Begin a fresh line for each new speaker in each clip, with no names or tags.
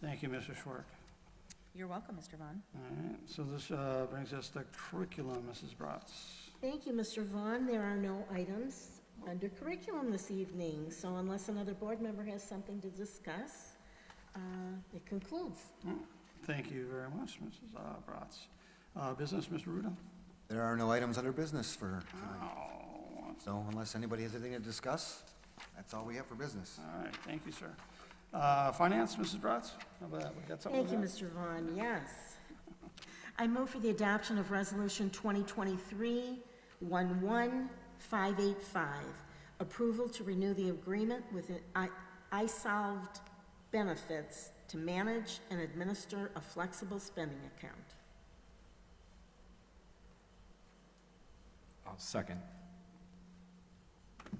Thank you, Mr. Schwark.
You're welcome, Mr. Vaughn.
All right, so this uh, brings us to curriculum, Mrs. Bratz.
Thank you, Mr. Vaughn. There are no items under curriculum this evening, so unless another board member has something to discuss, uh, it concludes.
Thank you very much, Mrs. uh, Bratz. Uh, Business, Mr. Ruda?
There are no items under business for tonight,
Oh,
so unless anybody has anything to discuss, that's all we have for business.
All right, thank you, sir. Uh, Finance, Mrs. Bratz? How about that? We got something
Thank you,
with
Mr. Vaughn, yes. I move for the adoption of Resolution 2023-11585, approval to renew the agreement with I- iSolved Benefits to manage and administer a flexible spending account.
I'll second.
that?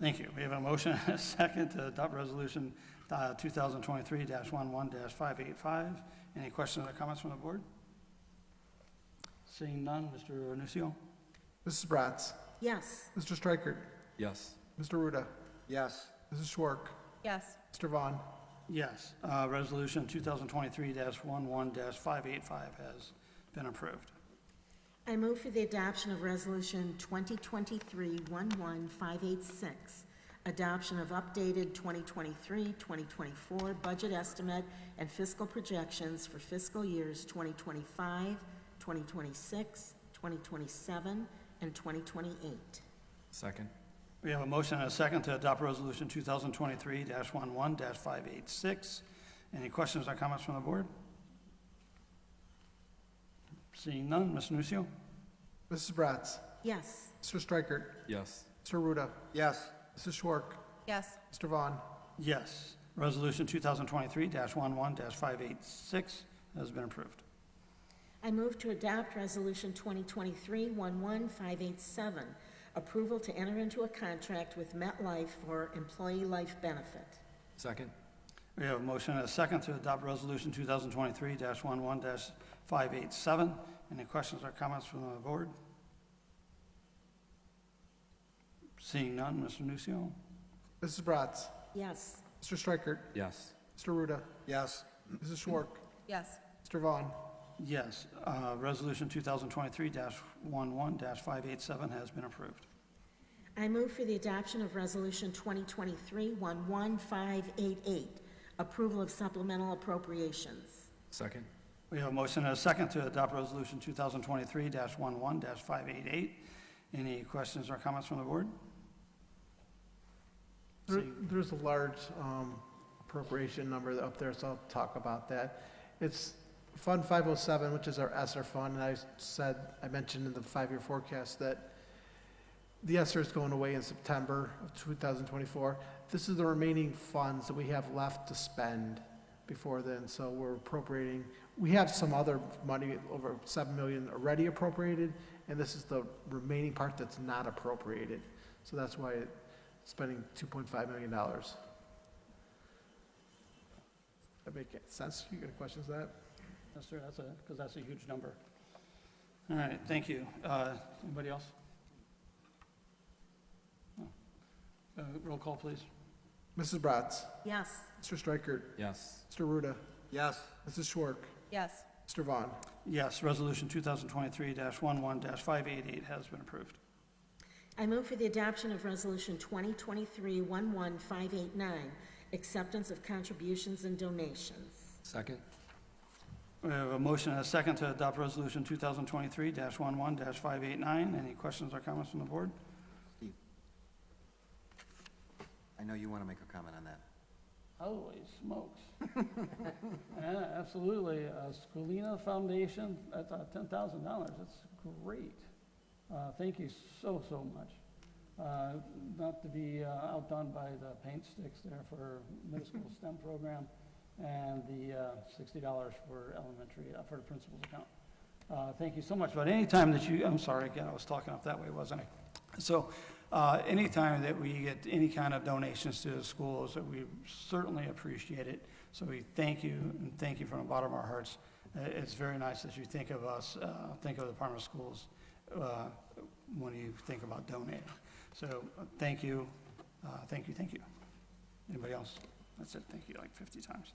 Thank you. We have a motion and a second to adopt Resolution uh, 2023-11-585. Any questions or comments from the board? Seeing none, Mr. Nucio?
Mrs. Bratz.
Yes.
Mr. Striker.
Yes.
Mr. Ruda.
Yes,
Mrs. Schwark.
Yes,
Mr. Vaughn.
Yes, uh, Resolution 2023-11-585 has been approved.
I move for the adoption of Resolution 2023-11586, adoption of updated 2023-2024 budget estimate and fiscal projections for fiscal years 2025, 2026, 2027, and 2028.
Second.
We have a motion and a second to adopt Resolution 2023-11-586. Any questions or comments from the board? Seeing none, Mr. Nucio?
Mrs. Bratz.
Yes.
Mr. Striker.
Yes.
Mr. Ruda.
yes,
Mrs. Schwark.
yes,
Mr. Vaughn.
Yes, Resolution 2023-11-586 has been approved.
I move to adopt Resolution 2023-11587, approval to enter into a contract with MetLife for employee life benefit.
Second.
We have a motion and a second to adopt Resolution 2023-11-587. Any questions or comments from the board? Seeing none, Mr. Nucio?
Mrs. Bratz.
Yes.
Mr. Striker.
Yes.
Mr. Ruda.
yes,
Mrs. Schwark.
yes,
Mr. Vaughn.
Yes, uh, Resolution 2023-11-587 has been approved.
I move for the adoption of Resolution 2023-11588, approval of supplemental appropriations.
Second.
We have a motion and a second to adopt Resolution 2023-11-588. Any questions or comments from the board?
There-
See-
There's a large um, appropriation number up there, so I'll talk about that. It's Fund 507, which is our ESSER fund, and I said, I mentioned in the five-year forecast that the ESSER is going away in September of 2024. This is the remaining funds that we have left to spend before then, so we're appropriating. We have some other money, over 7 million already appropriated, and this is the remaining part that's not appropriated. So that's why it spending $2.5 million. That make sense? You got questions on that?
Yes, sir, that's a, because that's a huge number. All right, thank you. Uh, Anybody else? No. Uh, Roll call, please.
Mrs. Bratz,
Yes.
Mr. Striker,
Yes.
Mr. Ruda,
yes,
Mrs. Schwark,
yes,
Mr. Vaughn.
Yes, Resolution 2023-11-588 has been approved.
I move for the adoption of Resolution 2023-11589, acceptance of contributions and donations.
Second.
We have a motion and a second to adopt Resolution 2023-11-589. Any questions or comments from the board?
I know you want to make a comment on that.
Holy smokes. Yeah, absolutely. Uh, Scolina Foundation, that's uh, $10,000. That's great. Uh, Thank you so, so much. Uh, Not to be uh, outdone by the paint sticks there for middle school STEM program and the uh, $60 for elementary, uh, for the principal's account. Uh, Thank you so much. But anytime that you, I'm sorry, again, I was talking up that way, wasn't I? So uh, anytime that we get any kind of donations to the schools, that we certainly appreciate it. So we thank you and thank you from the bottom of our hearts. Uh, It's very nice that you think of us, uh, think of the Department of Schools uh, when you think about donating. So uh, thank you, uh, thank you, thank you. Anybody else? That's it, thank you like 50 times.